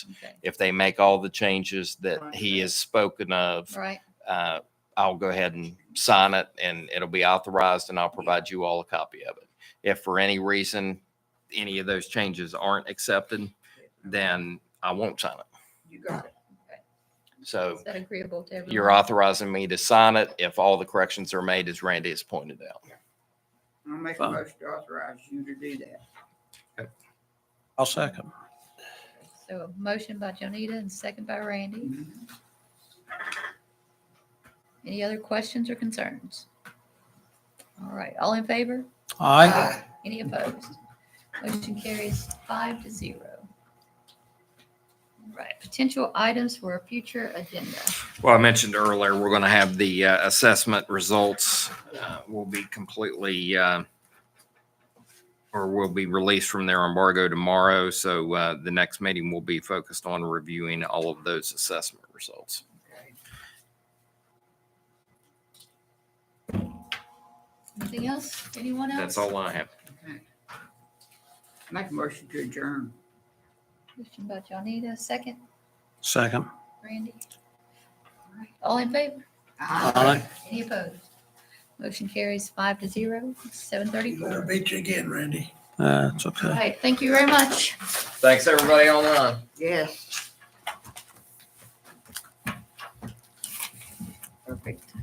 Okay. If they make all the changes that Right. he has spoken of, Right. uh, I'll go ahead and sign it and it'll be authorized and I'll provide you all a copy of it. If for any reason, any of those changes aren't accepted, then I won't sign it. You got it. So Is that agreeable to everyone? you're authorizing me to sign it if all the corrections are made as Randy has pointed out. I'll make a Fine. motion to authorize you to do that. I'll second. So a motion by Jonita and second by Randy. Mm-hmm. Any other questions or concerns? All right, all in favor? Aye. Any opposed? Motion carries five to zero. All Right, potential items for a future agenda. Well, I mentioned earlier, we're going to have the uh, assessment results uh, will be completely, uh, or will be released from their embargo tomorrow. So uh, the next meeting will be focused on reviewing all of those assessment results. Okay. Anything else? Anyone else? That's all I have. Okay. Make a motion to adjourn. Motion by Jonita, second, Second. Randy. All right, All in favor? Aye. Any opposed? Motion carries five to zero, seven thirty-four. beat you again, Randy. That's All Uh, okay. right, thank you very much. Thanks, everybody online. Yes. Perfect.